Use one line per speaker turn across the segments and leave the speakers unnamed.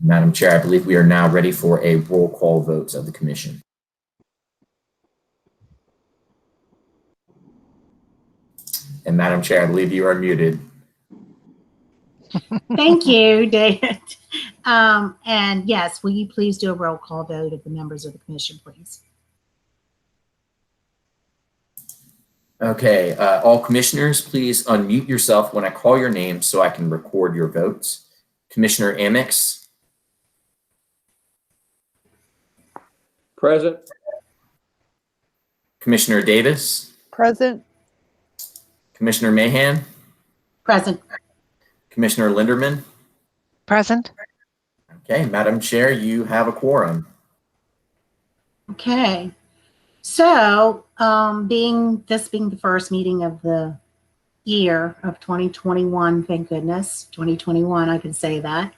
Madam Chair, I believe we are now ready for a roll call vote of the commission. And Madam Chair, I believe you are muted.
Thank you, David. Um, and yes, will you please do a roll call vote of the members of the commission, please?
Okay, uh, all commissioners, please unmute yourself when I call your name so I can record your votes. Commissioner Amix,
Present.
Commissioner Davis,
Present.
Commissioner Mahan,
Present.
Commissioner Linderman.
Present.
Okay, Madam Chair, you have a quorum.
Okay. So, um, being this being the first meeting of the year of 2021, thank goodness, 2021, I can say that.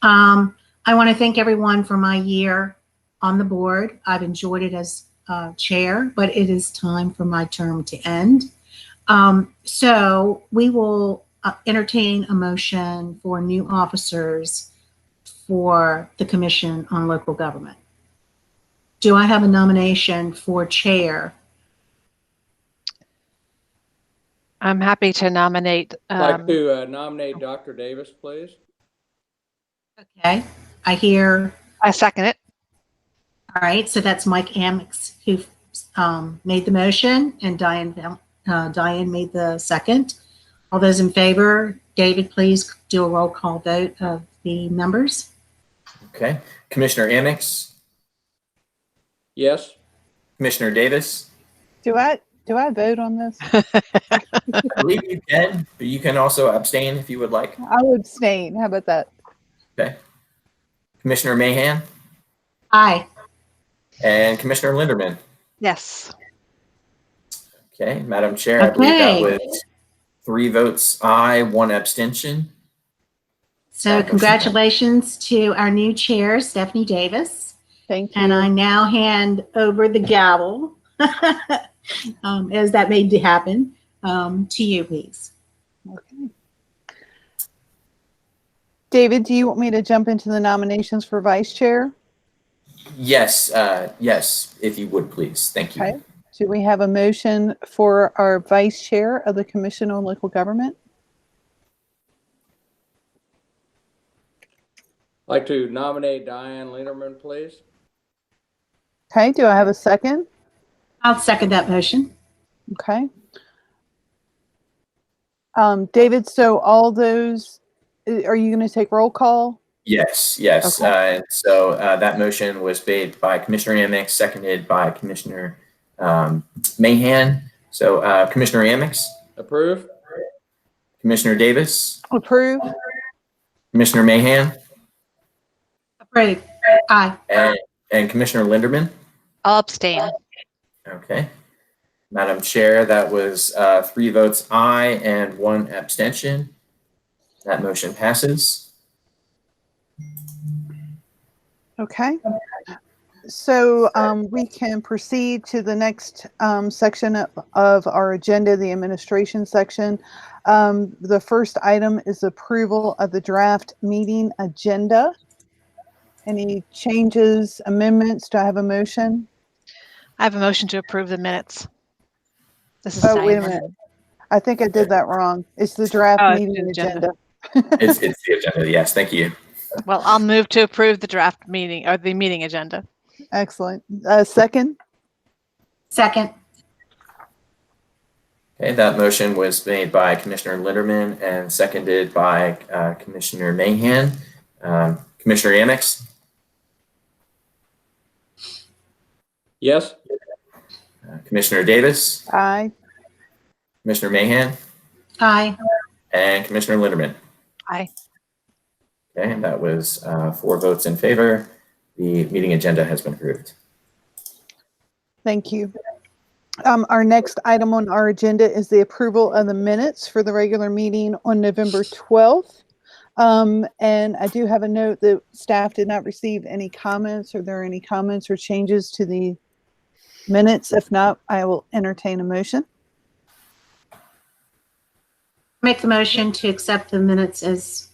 Um, I want to thank everyone for my year on the board. I've enjoyed it as uh, chair, but it is time for my term to end. Um, so, we will uh, entertain a motion for new officers for the Commission on Local Government. Do I have a nomination for chair?
I'm happy to nominate.
I'd like
um,
to uh, nominate Dr. Davis, please.
Okay, I hear,
I second it.
all right, so that's Mike Amix who um, made the motion and Diane, Val- uh, Diane made the second. All those in favor, David, please do a roll call vote of the members.
Okay, Commissioner Amix,
Yes.
Commissioner Davis,
Do I, do I vote on this?
I believe you can, but you can also abstain if you would like.
I would abstain. How about that?
Commissioner Mahan
Aye,
and Commissioner Linderman.
Yes.
Okay, Madam Chair, I believe that
Okay.
was three votes aye, one abstention.
so congratulations to our new chair, Stephanie Davis.
Thank you.
And I now hand over the gavel, um, as that may happen, um, to you, please.
Okay. David, do you want me to jump into the nominations for vice chair?
Yes, uh, yes, if you would please. Thank you.
Okay. Do we have a motion for our vice chair of the Commission on Local Government?
I'd like to nominate Diane Linderman, please.
Okay, do I have a second?
I'll second that motion.
Okay. Um, David, so all those, uh, are you going to take roll call?
Yes, yes.
Okay.
Uh, and so uh, that motion was made by Commissioner Amix, seconded by Commissioner um, Mahan. So uh, Commissioner Amix,
Approve?
Commissioner Davis,
Approve?
Commissioner Mahan,
Approved. Aye.
and, and Commissioner Linderman.
I'll abstain.
Okay. Madam Chair, that was uh, three votes aye and one abstention. That motion passes.
Okay. So um, we can proceed to the next um, section of- of our agenda, the administration section. Um, The first item is approval of the draft meeting agenda. Any changes, amendments? Do I have a motion?
I have a motion to approve the minutes. This is
Oh, wait a
Diane.
minute. I think I did that wrong. It's the draft
Oh, it's
meeting
the
agenda.
agenda.
It's, it's the agenda. Yes, thank you.
Well, I'll move to approve the draft meeting or the meeting agenda.
Excellent. Uh, Second?
Second.
Okay, that motion was made by Commissioner Linderman and seconded by uh, Commissioner Mahan. Um, Commissioner Amix,
Yes.
uh, Commissioner Davis,
Aye.
Commissioner Mahan,
Aye.
and Commissioner Linderman.
Aye.
Okay, and that was uh, four votes in favor. The meeting agenda has been approved.
Thank you. Um, our next item on our agenda is the approval of the minutes for the regular meeting on November 12th. Um, and I do have a note that staff did not receive any comments. Are there any comments or changes to the minutes? If not, I will entertain a motion.
Make the motion to accept the minutes as